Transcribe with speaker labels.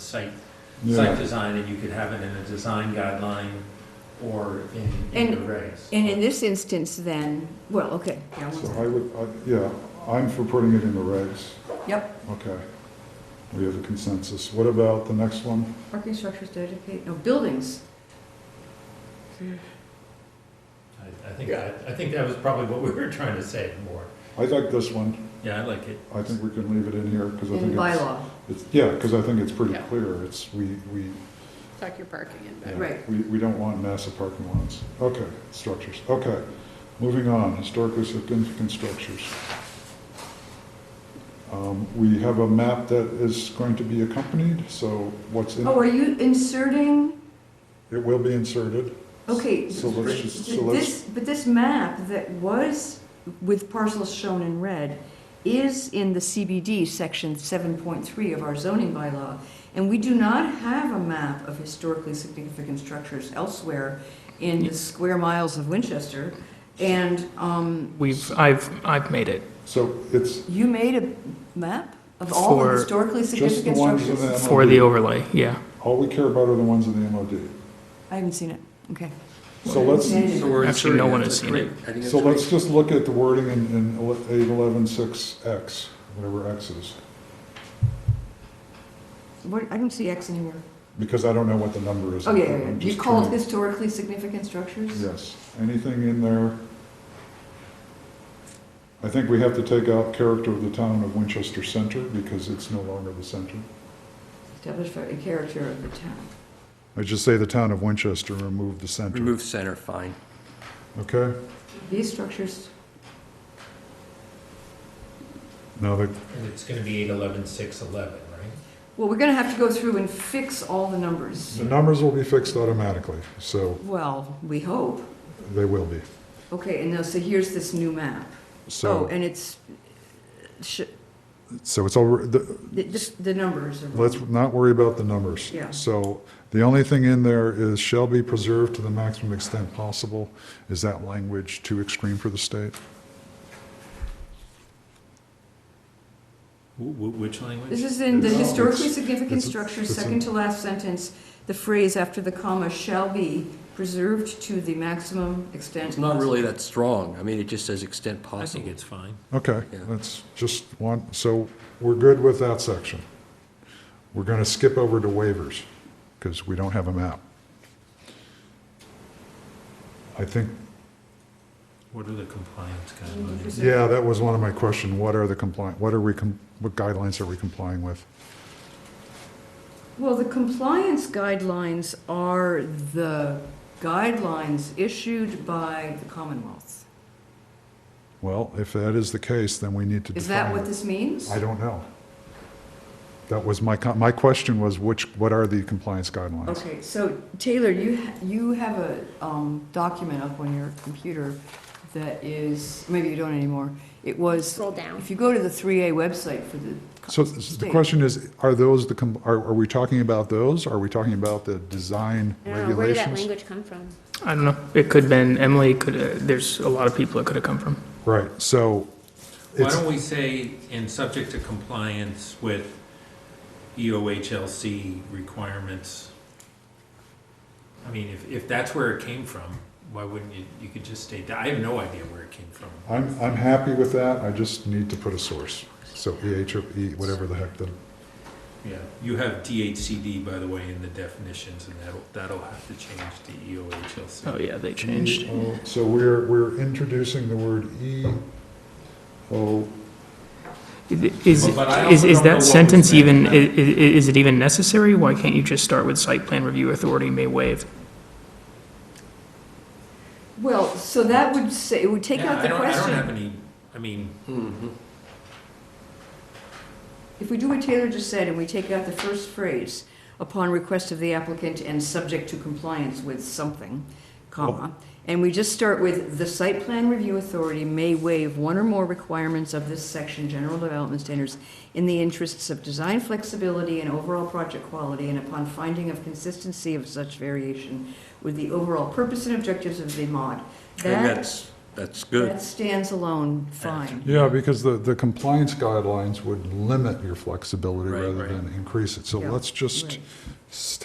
Speaker 1: site, site
Speaker 2: Yeah,
Speaker 1: design, and you could have it in a design guideline or in, in
Speaker 3: And-
Speaker 1: your regs.
Speaker 3: And in this instance, then, well, okay. yeah, one
Speaker 2: so
Speaker 3: second.
Speaker 2: I would, I- yeah, I'm for putting it in the regs.
Speaker 3: Yep,
Speaker 2: Okay. We have a consensus. What about the next one?
Speaker 3: parking structures dedicated, no, buildings.
Speaker 1: I, I think, I, I think that was probably what we were trying to say more.
Speaker 2: I like this one.
Speaker 1: Yeah, I like it.
Speaker 2: I think we can leave it in here because I
Speaker 3: In
Speaker 2: think it's,
Speaker 3: bylaw,
Speaker 2: it's, yeah, because I think it's pretty
Speaker 4: Yeah.
Speaker 2: clear. It's, we, we,
Speaker 4: Tuck your parking in
Speaker 2: yeah,
Speaker 4: back.
Speaker 3: Right.
Speaker 2: we, we don't want massive parking lots. Okay, structures. Okay. Moving on, historically significant structures. Um, We have a map that is going to be accompanied, so what's in,
Speaker 3: oh, are you inserting,
Speaker 2: it will be inserted.
Speaker 3: okay.
Speaker 2: So let's just, so let's,
Speaker 3: This, but this map that was with parcels shown in red is in the CBD section seven point three of our zoning bylaw. And we do not have a map of historically significant structures elsewhere in the square miles of Winchester. And, um,
Speaker 5: We've, I've, I've made it
Speaker 2: so it's
Speaker 3: you made a map of all the
Speaker 5: For-
Speaker 3: historically
Speaker 2: just the
Speaker 3: significant
Speaker 2: ones in the
Speaker 3: structures?
Speaker 2: MOD.
Speaker 5: for the overlay, yeah.
Speaker 2: All we care about are the ones in the MOD.
Speaker 3: I haven't seen it, okay.
Speaker 2: So let's,
Speaker 6: So we're
Speaker 5: Actually, no
Speaker 6: inserting
Speaker 5: one
Speaker 6: it.
Speaker 5: has seen it.
Speaker 6: I think
Speaker 2: so
Speaker 6: that's great.
Speaker 2: let's just look at the wording in, in eight eleven six X, whatever X is,
Speaker 3: What, I don't see X anywhere.
Speaker 2: because I don't know what the number is.
Speaker 3: Oh, yeah, yeah,
Speaker 2: I'm
Speaker 3: yeah.
Speaker 2: just
Speaker 3: you call it
Speaker 2: trying-
Speaker 3: historically significant structures?
Speaker 2: Yes, anything in there? I think we have to take out character of the town of Winchester Center, because it's no longer the center.
Speaker 3: Establish a character of the town.
Speaker 2: I just say the town of Winchester, remove the center,
Speaker 6: Remove center, fine.
Speaker 2: okay?
Speaker 3: These structures,
Speaker 2: Now that,
Speaker 1: And it's gonna be eight eleven, six eleven, right?
Speaker 3: well, we're gonna have to go through and fix all the numbers.
Speaker 2: the numbers will be fixed automatically, so
Speaker 3: Well, we hope.
Speaker 2: they will be,
Speaker 3: Okay, and now, so here's this new map. Oh,
Speaker 2: so,
Speaker 3: and it's, sh-
Speaker 2: so it's all, the,
Speaker 3: the, the- the numbers are. wrong.
Speaker 2: Let's not worry about the numbers.
Speaker 3: Yeah.
Speaker 2: So the only thing in there is shall be preserved to the maximum extent possible. Is that language too extreme for the state?
Speaker 1: Which
Speaker 3: This
Speaker 1: language?
Speaker 3: is in the
Speaker 2: It's-
Speaker 3: historically
Speaker 2: it's-
Speaker 3: significant
Speaker 2: it's-
Speaker 3: structures,
Speaker 2: it's in-
Speaker 3: second to last sentence, the phrase after the comma shall be preserved to the maximum extent.
Speaker 6: It's not really that strong. I mean, it just says extent
Speaker 1: I think
Speaker 6: possible.
Speaker 1: it's fine.
Speaker 2: Okay,
Speaker 6: Yeah.
Speaker 2: that's just one, so we're good with that section. We're going to skip over to waivers because we don't have a map. I think,
Speaker 1: What are the compliance guidelines?
Speaker 2: yeah, that was one of my question. What are the compliant, what are we, com- what guidelines are we complying with?
Speaker 3: Well, the compliance guidelines are the guidelines issued by the Commonwealth.
Speaker 2: Well, if that is the case, then we need to define
Speaker 3: Is that
Speaker 2: it.
Speaker 3: what this means?
Speaker 2: I don't know. That was my, co- my question was which, what are the compliance guidelines?
Speaker 3: Okay, so Taylor, you, ha- you have a um, document up on your computer that is, maybe you don't anymore. It was,
Speaker 4: Scroll down.
Speaker 3: if you go to the 3A website for the.
Speaker 2: So s- the
Speaker 3: state-
Speaker 2: question is, are those the, com- are, are we talking about those? Are we talking about the design
Speaker 4: I don't know, where did that
Speaker 2: regulations?
Speaker 4: language come from?
Speaker 5: I don't know, it could have been Emily, could, uh, there's a lot of people it could have come from.
Speaker 2: Right, so
Speaker 1: Why
Speaker 2: it's,
Speaker 1: don't we say, in subject to compliance with E EOHLC requirements? I mean, if, if that's where it came from, why wouldn't you, you could just state that, I have no idea where it came from.
Speaker 2: I'm, I'm happy with that, I just need to put a source. So EH or E, whatever the heck the,
Speaker 1: Yeah, you have DHCD, by the way, in the definitions, and that'll, that'll have to change to E EOHLC.
Speaker 5: Oh, yeah, they changed.
Speaker 2: Oh, So we're, we're introducing the word E, O,
Speaker 5: Is,
Speaker 1: But I also
Speaker 5: is, is
Speaker 1: don't know what
Speaker 5: that
Speaker 1: was
Speaker 5: sentence
Speaker 1: meant
Speaker 5: even,
Speaker 1: by-
Speaker 5: i- i- is it even necessary? Why can't you just start with site plan review authority may waive?
Speaker 3: Well, so that would say, it would take
Speaker 1: Yeah,
Speaker 3: out
Speaker 1: I
Speaker 3: the
Speaker 1: don't- I don't have
Speaker 3: question.
Speaker 1: any, I mean,
Speaker 6: Mhm.
Speaker 3: If we do what Taylor just said and we take out the first phrase, upon request of the applicant and subject to compliance with something, comma, and we just start with, the site plan review authority may waive one or more requirements of this section, general development standards, in the interests of design flexibility and overall project quality, and upon finding of consistency of such variation with the overall purpose and objectives of the mod.
Speaker 6: I think
Speaker 3: That,
Speaker 6: that's that's good.
Speaker 3: That stands alone, fine.
Speaker 2: Yeah, because the, the compliance guidelines would limit your flexibility
Speaker 6: Right,
Speaker 2: rather
Speaker 6: right.
Speaker 2: than increase it. So
Speaker 3: Yeah,
Speaker 2: let's just
Speaker 3: right.
Speaker 2: stay